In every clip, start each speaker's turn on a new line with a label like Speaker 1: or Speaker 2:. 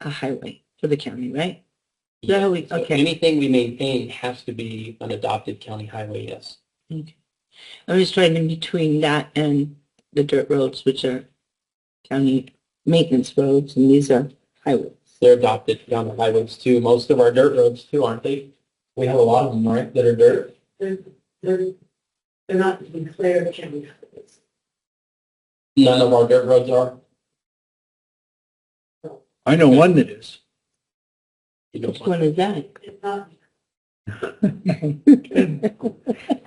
Speaker 1: a highway for the county, right? Is that how we-
Speaker 2: So
Speaker 1: okay.
Speaker 2: Anything we maintain has to be an adopted county highway, yes.
Speaker 1: I'm just trying in between that and the dirt roads, which are county maintenance roads, and these are highways.
Speaker 2: They're adopted county highways too. Most of our dirt roads too, aren't they? We have a lot of them, right, that are dirt?
Speaker 1: They're, they're, they're not declared county highways.
Speaker 2: None of our dirt roads are.
Speaker 3: I know one that is.
Speaker 2: You
Speaker 1: Which
Speaker 2: don't
Speaker 1: one
Speaker 2: want-
Speaker 1: is that?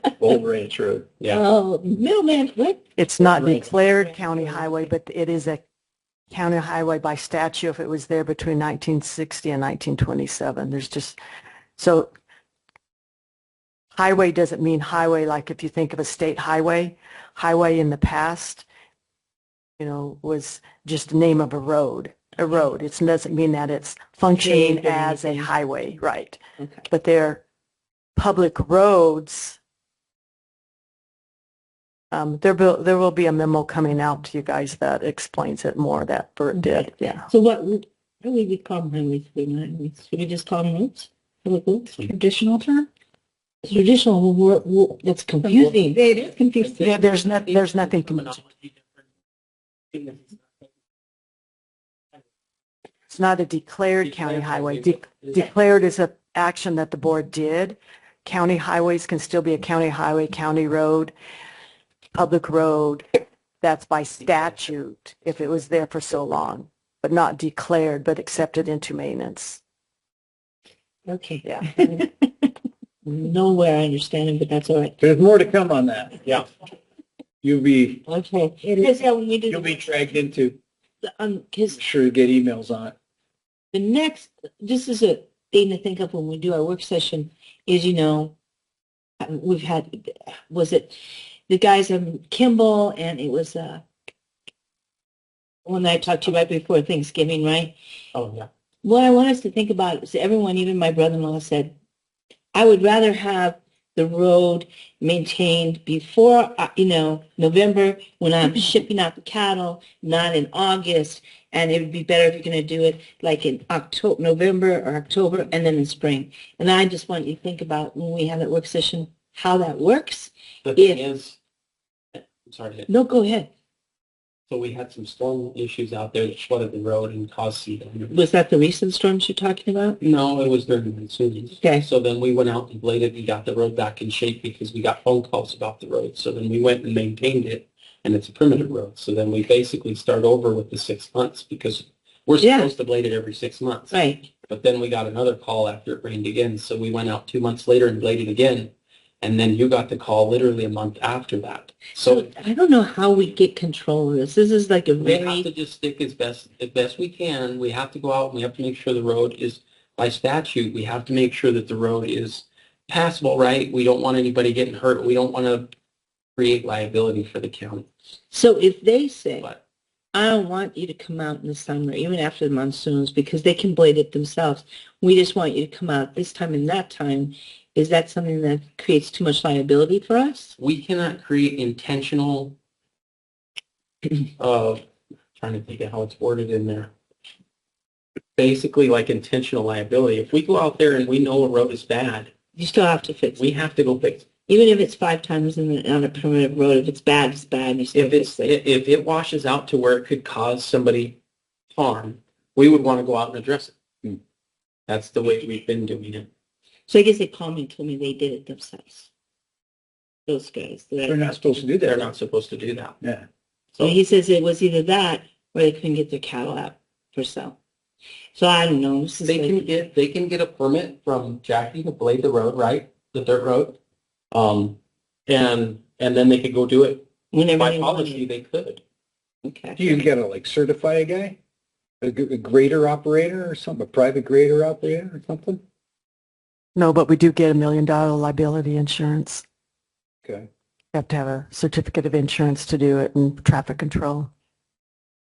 Speaker 3: Old Ranch Road.
Speaker 2: Yeah,
Speaker 1: Oh, middleman, what?
Speaker 4: It's not
Speaker 2: Right.
Speaker 4: declared county highway, but it is a county highway by statute if it was there between 1960 and 1927. There's just, so highway doesn't mean highway, like if you think of a state highway, highway in the past, you know, was just the name of a road, a road. It doesn't mean that it's functioning
Speaker 1: Paved or
Speaker 4: as a
Speaker 1: anything.
Speaker 4: highway, right?
Speaker 1: Okay.
Speaker 4: But they're public roads. Um, there will, there will be a memo coming out to you guys that explains it more that Bert did, yeah.
Speaker 1: So what, would- what would we call them highways? if they're not highways? Should we just call them roads? Public roads?
Speaker 4: Additional term?
Speaker 1: Traditional, wo- wo- that's confusing. It is confusing.
Speaker 4: Yeah, there's not, there's nothing. con- It's not a declared county highway. De- Declared is a action that the board did. County highways can still be a county highway, county road, public road. That's by statute if it was there for so long, but not declared, but accepted into maintenance.
Speaker 1: Okay.
Speaker 4: Yeah.
Speaker 1: Nowhere I understand it, but that's all right.
Speaker 3: There's more to come on that.
Speaker 2: yeah.
Speaker 3: You'll be,
Speaker 1: Okay. Because yeah, when we do.
Speaker 3: you'll be dragged into,
Speaker 1: the- Um, cause
Speaker 3: I'm sure you get emails on it.
Speaker 1: the next, this is a thing to think of when we do our work session is, you know, uh, we've had, was it the guys in Kimball and it was, uh, one that I talked to right before Thanksgiving, right?
Speaker 2: Oh, yeah.
Speaker 1: What I want us to think about is everyone, even my brother-in-law said, I would rather have the road maintained before, uh, you know, November when I'm shipping out the cattle, not in August. And it would be better if you're going to do it like in October, November or October and then in spring. And I just want you to think about when we have that work session, how that works.
Speaker 2: The thing is, I'm sorry, to-
Speaker 1: No, go ahead.
Speaker 2: so we had some storm issues out there that flooded the road and caused some damage.
Speaker 1: Was that the recent storms you're talking about?
Speaker 2: No, it was during the monsoons.
Speaker 1: Okay.
Speaker 2: So then we went out and bladed and got the road back in shape because we got phone calls about the road. So then we went and maintained it and it's a primitive road. So then we basically start over with the six months because we're
Speaker 1: Yeah.
Speaker 2: supposed to blade it every six months.
Speaker 1: Right.
Speaker 2: But then we got another call after it rained again. So we went out two months later and bladed again. And then you got the call literally a month after that. So
Speaker 1: So I don't know how we get control of this. This is like a
Speaker 2: we have to
Speaker 1: very,
Speaker 2: just stick as best, as best we can. We have to go out and we have to make sure the road is, by statute, we have to make sure that the road is passable, right? We don't want anybody getting hurt. We don't want to create liability for the county.
Speaker 1: so if they say,
Speaker 2: But
Speaker 1: I don't want you to come out in the summer, even after the monsoons, because they can blade it themselves. We just want you to come out this time and that time. Is that something that creates too much liability for us?
Speaker 2: we cannot create intentional, uh, trying to think of how it's worded in there. Basically like intentional liability. If we go out there and we know a road is bad,
Speaker 1: You still have to fix it.
Speaker 2: we have to go fix it.
Speaker 1: Even if it's five times in the, on a primitive road, if it's bad, it's bad. You still
Speaker 2: If it's,
Speaker 1: fix it.
Speaker 2: i- if it washes out to where it could cause somebody harm, we would want to go out and address
Speaker 3: Hmm.
Speaker 2: it. That's the way we've been doing it.
Speaker 1: So I guess they called me and told me they did it themselves. Those guys.
Speaker 3: They're not supposed to do
Speaker 2: They're
Speaker 3: that.
Speaker 2: not supposed to do that.
Speaker 3: Yeah.
Speaker 1: So
Speaker 2: So
Speaker 1: he says it was either that or they couldn't get their cattle out for sale. So I don't know. This is
Speaker 2: they
Speaker 1: like-
Speaker 2: can get, they can get a permit from Jackie to blade the road, right? The dirt road. Um, and, and then they could go do it.
Speaker 1: whenever
Speaker 2: By
Speaker 1: they
Speaker 2: policy,
Speaker 1: wanted.
Speaker 2: they could.
Speaker 1: Okay.
Speaker 3: You gotta like certify a guy, a g- a grader operator or something, a private grader operator or something?
Speaker 4: No, but we do get a million dollar liability insurance.
Speaker 3: Okay.
Speaker 4: You have to have a certificate of insurance to do it and traffic control.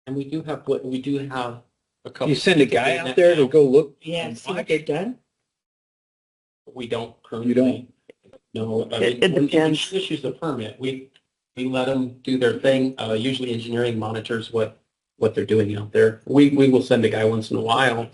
Speaker 2: And we do have, what we do have a couple.
Speaker 3: You send a guy out there to go look,
Speaker 1: Yeah, see what they've done?
Speaker 2: We don't currently.
Speaker 3: You don't?
Speaker 2: No. I
Speaker 4: It-
Speaker 2: mean,
Speaker 4: it
Speaker 2: when- when
Speaker 4: depends.
Speaker 2: she Issues the permit, we, we let them do their thing. Uh, usually engineering monitors what what they're doing out there. We, we will send a guy once in a while